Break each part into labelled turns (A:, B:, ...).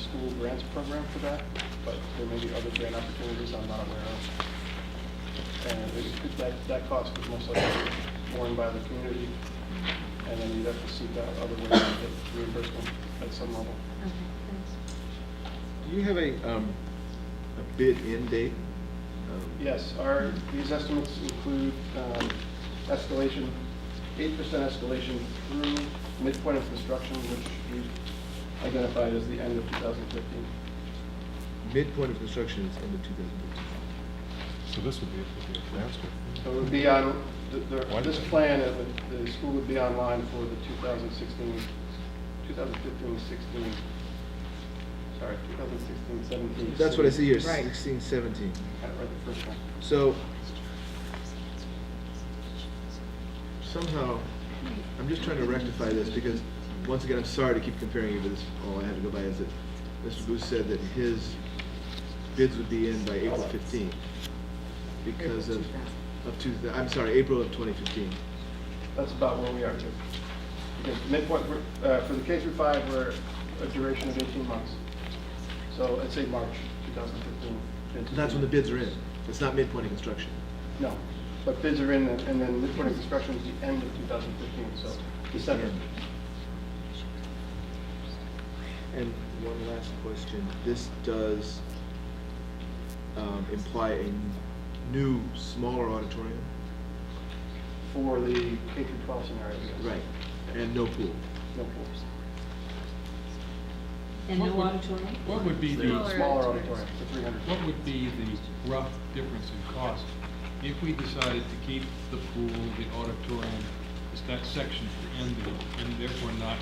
A: school grants program for that, but there may be other grant opportunities I'm not aware of. And it- it- that, that cost is most likely borne by the community, and then you'd have to seek out other ways to get reimbursement at some level.
B: Okay, thanks.
C: Do you have a, um, a bid end date? Um,
A: Yes, our, these estimates include um, escalation, eight percent escalation through midpoint of construction, which we identified as the end of 2015.
C: Midpoint of construction is end of two thousand
D: So this would be, would be a transfer.
A: So it would be on, the- the-
D: What?
A: this plan, it would- the school would be online for the 2016, 2015, 16, sorry, 2016, 17.
C: fifteen. That's what I see here,
E: Right.
C: sixteen, seventeen.
A: Got it right the first time.
C: So somehow, I'm just trying to rectify this because, once again, I'm sorry to keep comparing you, but this, all I have to go by is that Mr. Booth said that his bids would be in by April fifteenth because
E: April
C: of, of two, thou- I'm sorry, April of twenty fifteen.
A: That's about where we are too. Because midpoint, we're, uh, for the K through five, we're a duration of 18 months. So I'd say March 2015. bids.
C: That's when the bids are in. It's not midpoint of construction.
A: No, but bids are in, and and then midpoint of construction is the end of 2015, so December.
C: And one last question, this does um, imply a new, smaller auditorium?
A: For the K through 12 scenario, yes.
C: And no pool?
A: No pools.
B: And
F: What
B: no
F: would-
B: auditorium?
F: What would be
B: Smaller.
F: the,
A: Smaller auditorium for 300.
F: what would be the rough difference in cost if we decided to keep the pool, the auditorium, is that section for end of, and therefore not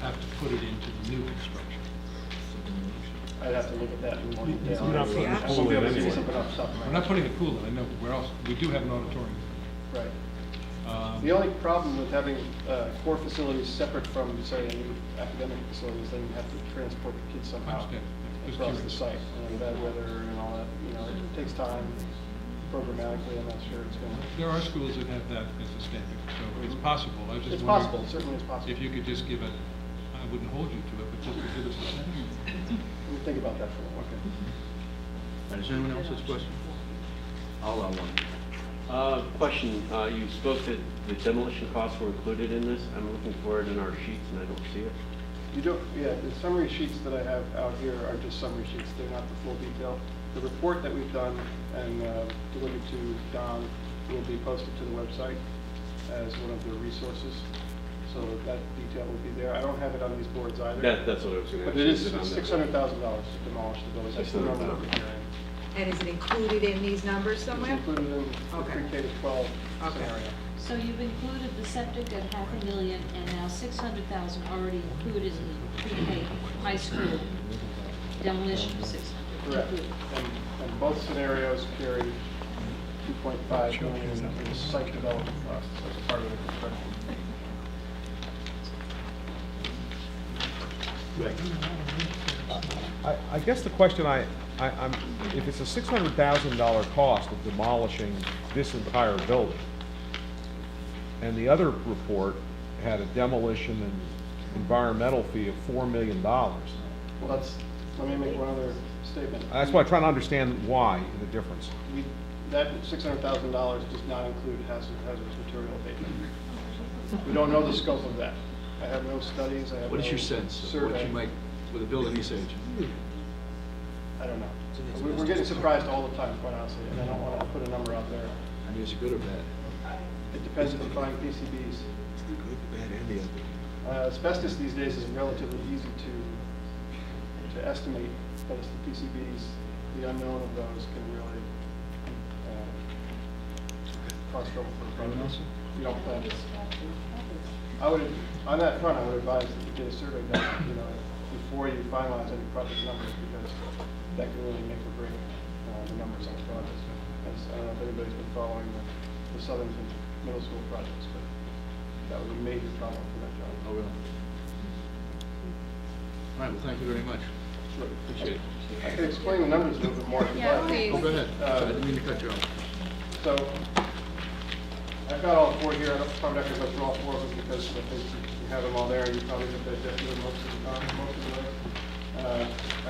F: have to put it into the new construction?
A: I'd have to look at that in more detail.
D: We're not putting
E: a
A: We'll
D: pool
A: be
D: in
A: able to see
D: anyway.
A: something off the top of my
F: We're not
A: head.
F: putting a pool in, I know, but where else, we do have an auditorium.
A: Right.
F: Um,
A: The only problem with having uh, core facilities separate from, say, a new academic facilities, then you have to transport the kids somehow
F: Understand. Just
A: across the
F: curious.
A: site, and bad weather and all that, you know, it takes time programmatically, I'm not sure it's going to...
F: There are schools that have that as a standard, so it's possible, I was just
A: Mhm. It's
F: wondering.
A: possible, certainly it's possible.
F: If you could just give it, I wouldn't hold you to it, but just to give us a sense.
A: We'll think about that for a while. Okay.
G: Does anyone else have a question? I'll allow one. Uh, Question, uh, you spoke that the demolition costs were included in this. I'm looking for it in our sheets and I don't see it.
A: You don't, yeah, the summary sheets that I have out here are just summary sheets, they're not the full detail. The report that we've done and uh, delivered to Don will be posted to the website as one of the resources, so that detail will be there. I don't have it on these boards either.
G: That, that's what I was going to ask.
A: But it is
G: on that?
A: six hundred thousand dollars to demolish the building, that's the number that we're hearing.
E: And is it included in these numbers
A: It's
E: somewhere?
A: included in the
E: Okay.
A: pre-K to twelve
E: Okay.
A: scenario.
B: So you've included the septic at half a million, and now six hundred thousand already included in the pre-K high school demolition of six hundred.
A: Correct. And, and both scenarios carry two point five million in site development costs as part of the construction.
C: Right.
D: I, I guess the question I, I, I'm, if it's a six hundred thousand dollar cost of demolishing this entire building, and the other report had a demolition and environmental fee of four million dollars,
A: Well, that's, let me make one other statement.
D: that's why I'm trying to understand why, the difference.
A: We, that six hundred thousand dollars does not include hazard, hazardous material abatement. We don't know the scope of that. I have no studies, I have no survey.
C: What is your sense of what you might, with a building research?
A: I don't know. We- We're getting surprised all the time, quite honestly, and I don't want to put a number out there.
C: I mean, is it good or bad?
A: It depends if you find PCBs.
C: It's the good, the bad, and the ugly.
A: Uh, Asbestos these days is relatively easy to, to estimate, but it's the PCBs, the unknown of those can really uh, cause trouble for the project. You don't plan it. I would, on that front, I would advise that you get a survey done, you know, before you finalize any project numbers, because that can really make or break uh, the numbers on the project. As- I don't know if anybody's been following the- the Southern Middle School projects, but that was a major problem for that job.
C: Oh, really? All right, well, thank you very much.
A: Sure,
C: Appreciate it.
A: I can explain the numbers a little bit more. if you'd
E: Yeah,
A: like.
E: please.
C: Oh, go ahead.
A: Uh,
C: Sorry, I didn't mean to cut you off.
A: So, I've got all four here, I'm probably not gonna go through all four of them because I think you have them all there, and you probably have digested them most of the time, most of the, uh,